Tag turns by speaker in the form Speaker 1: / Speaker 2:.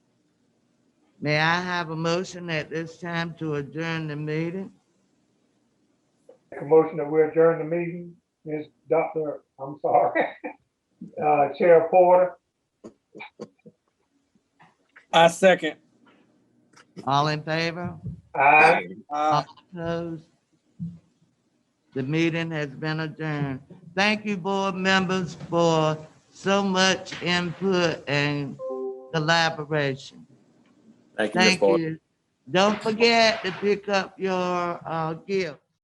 Speaker 1: May I have a motion at this time to adjourn the meeting?
Speaker 2: Make a motion that we adjourn the meeting. Ms. Dr., I'm sorry, Uh, Chair Porter,
Speaker 3: I second.
Speaker 1: All in favor?
Speaker 2: aye.
Speaker 3: Uh,
Speaker 1: Opposed? The meeting has been adjourned. Thank you, board members, for so much input and collaboration.
Speaker 4: Thank you, Ms.
Speaker 1: Thank
Speaker 4: Porter.
Speaker 1: you. Don't forget to pick up your uh, gift.